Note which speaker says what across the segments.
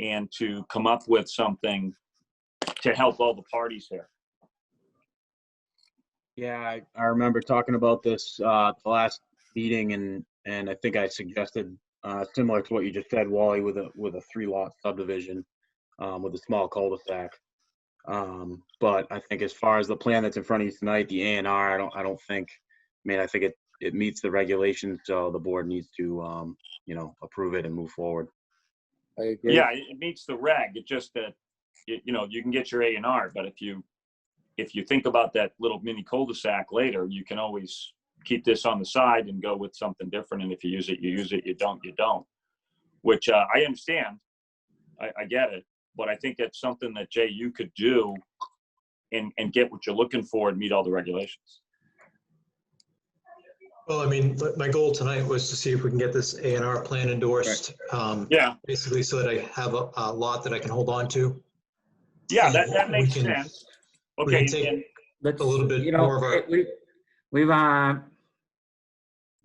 Speaker 1: and to come up with something to help all the parties here.
Speaker 2: Yeah, I, I remember talking about this, uh, the last meeting and, and I think I suggested, uh, similar to what you just said, Wally, with a, with a three lot subdivision, um, with a small cul-de-sac. Um, but I think as far as the plan that's in front of you tonight, the A and R, I don't, I don't think, I mean, I think it, it meets the regulations, so the board needs to, um, you know, approve it and move forward.
Speaker 3: I agree.
Speaker 1: Yeah, it it meets the reg, it's just that, you, you know, you can get your A and R, but if you, if you think about that little mini cul-de-sac later, you can always keep this on the side and go with something different, and if you use it, you use it, you don't, you don't. Which, uh, I understand, I, I get it, but I think that's something that, Jay, you could do and, and get what you're looking for and meet all the regulations.
Speaker 4: Well, I mean, my- my goal tonight was to see if we can get this A and R plan endorsed, um,
Speaker 1: Yeah,
Speaker 4: basically so that I have a a lot that I can hold on to.
Speaker 1: yeah, that, that
Speaker 4: We
Speaker 1: makes
Speaker 4: can-
Speaker 1: sense.
Speaker 4: we can
Speaker 1: Okay,
Speaker 4: take-
Speaker 1: and-
Speaker 5: Let's,
Speaker 4: a little bit
Speaker 5: you know,
Speaker 4: more of a-
Speaker 5: it- we- We've, uh,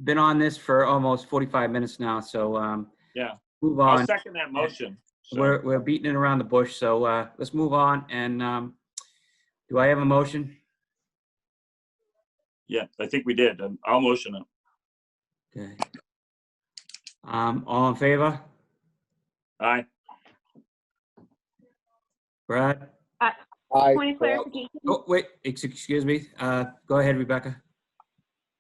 Speaker 5: been on this for almost 45 minutes now, so, um.
Speaker 1: Yeah.
Speaker 5: Move
Speaker 1: I'll
Speaker 5: on.
Speaker 1: second that motion. so-
Speaker 5: We're, we're beating it around the bush, so, uh, let's move on and, um, do I have a motion?
Speaker 1: Yeah, I think we did. Um, I'll motion it.
Speaker 5: Okay. Um, all in favor?
Speaker 1: Aye.
Speaker 5: Brad?
Speaker 3: I,
Speaker 6: Point of clarification,
Speaker 5: Oh, wait, ex- excuse me. Uh, go ahead, Rebecca.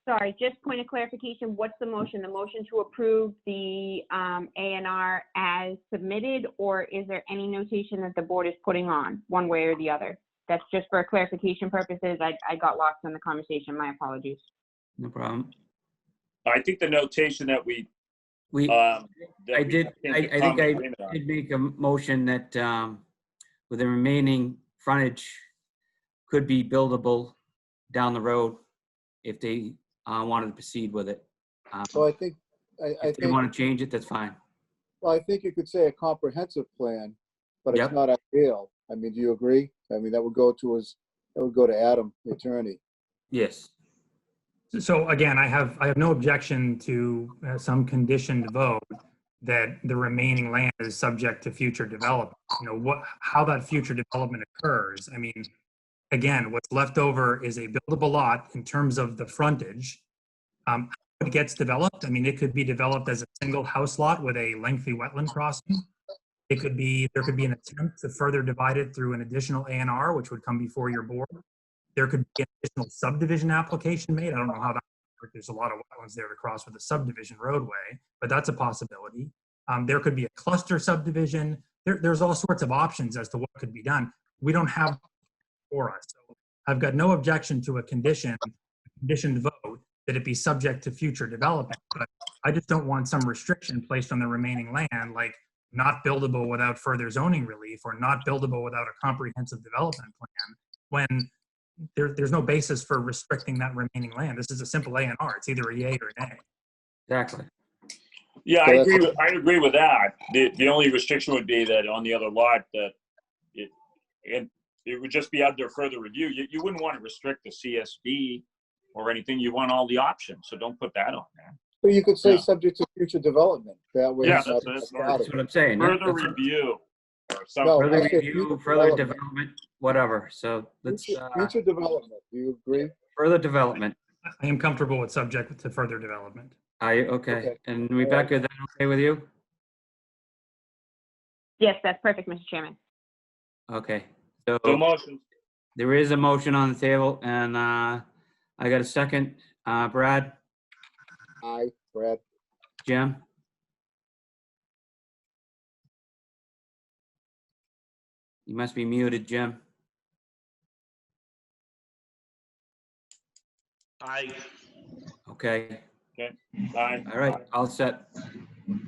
Speaker 6: sorry, just point of clarification, what's the motion? The motion to approve the um, A and R as submitted, or is there any notation that the board is putting on, one way or the other? That's just for clarification purposes. I, I got lost in the conversation. My apologies.
Speaker 5: No problem.
Speaker 1: I think the notation that we,
Speaker 5: We
Speaker 1: um. that
Speaker 5: I
Speaker 1: we
Speaker 5: did-
Speaker 1: came
Speaker 5: I-
Speaker 1: to
Speaker 5: I think
Speaker 1: common
Speaker 5: I
Speaker 1: agreement on.
Speaker 5: did make a motion that, um, with the remaining frontage could be buildable down the road if they, uh, wanted to proceed with it. Um,
Speaker 3: so I think, I, I
Speaker 5: If they
Speaker 3: think,
Speaker 5: want to change it, that's fine.
Speaker 3: well, I think you could say a comprehensive plan, but
Speaker 5: Yep.
Speaker 3: it's not ideal. I mean, do you agree? I mean, that would go to his, that would go to Adam, the attorney.
Speaker 5: Yes.
Speaker 7: So again, I have, I have no objection to uh, some conditioned vote that the remaining land is subject to future development. You know, what, how that future development occurs. I mean, again, what's left over is a buildable lot in terms of the frontage. Um, how It gets developed, I mean, it could be developed as a single house lot with a lengthy wetland crossing. It could be, there could be an attempt to further divide it through an additional A and R, which would come before your board there could be an additional subdivision application made. I don't know how that, there's a lot of wetlands there to cross with a subdivision roadway, but that's a possibility. Um, there could be a cluster subdivision. There, there's all sorts of options as to what could be done. We don't have for us. So I've got no objection to a condition, conditioned vote that it be subject to future development, but I just don't want some restriction placed on the remaining land, like not buildable without further zoning relief or not buildable without a comprehensive development plan. When there, there's no basis for restricting that remaining land. This is a simple A and R. It's either a yay or an A.
Speaker 5: Exactly.
Speaker 1: Yeah, I
Speaker 3: So that's-
Speaker 1: agree, with- I agree with that. The, the only restriction would be that on the other lot that it, and it would just be under further review. You, you wouldn't want to restrict the CSD or anything. You want all the options, so don't put that on there.
Speaker 3: But you could say
Speaker 1: Yeah.
Speaker 3: subject to future development, that way.
Speaker 1: Yeah,
Speaker 3: it's not-
Speaker 1: that's-
Speaker 3: it's not
Speaker 5: That's
Speaker 3: Adam.
Speaker 5: what I'm saying. That-
Speaker 1: Further
Speaker 5: that's-
Speaker 1: review or
Speaker 3: No,
Speaker 1: something.
Speaker 5: Further
Speaker 3: I said
Speaker 5: review,
Speaker 3: future
Speaker 5: further
Speaker 3: development.
Speaker 5: development, whatever. So let's,
Speaker 3: Future
Speaker 5: uh,
Speaker 3: future development, do you agree?
Speaker 5: further development.
Speaker 7: I am comfortable with subject to further development.
Speaker 5: Are you, okay.
Speaker 3: Okay.
Speaker 5: And Rebecca, is that okay with you?
Speaker 6: Yes, that's perfect, Mr. Chairman.
Speaker 5: Okay.
Speaker 1: So motion,
Speaker 5: There is a motion on the table, and uh, I got a second. Uh, Brad,
Speaker 3: Aye, Brad.
Speaker 5: Jim? You must be muted, Jim. Aye. Okay,
Speaker 1: aye.
Speaker 5: all right, all set.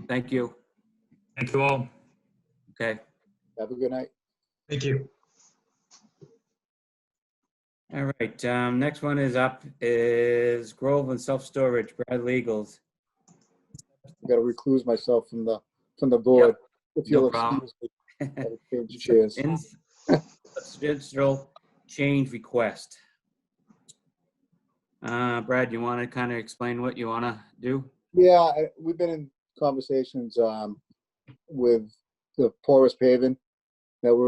Speaker 5: Thank you.
Speaker 7: Thank you all.
Speaker 5: Okay,
Speaker 3: Have a good night.
Speaker 4: Thank you.
Speaker 5: all right. um, Next one is up is Grove and Self Storage, Brad Legals.
Speaker 3: I gotta recluse myself from the, from the board. If
Speaker 5: No
Speaker 3: you'll
Speaker 5: problem.
Speaker 3: excuse me, I'll change chairs.
Speaker 5: In- Substantial change request. Uh, Brad, you want to kind of explain what you want to do?
Speaker 3: Yeah, I- we've been in conversations um, with the porous paving.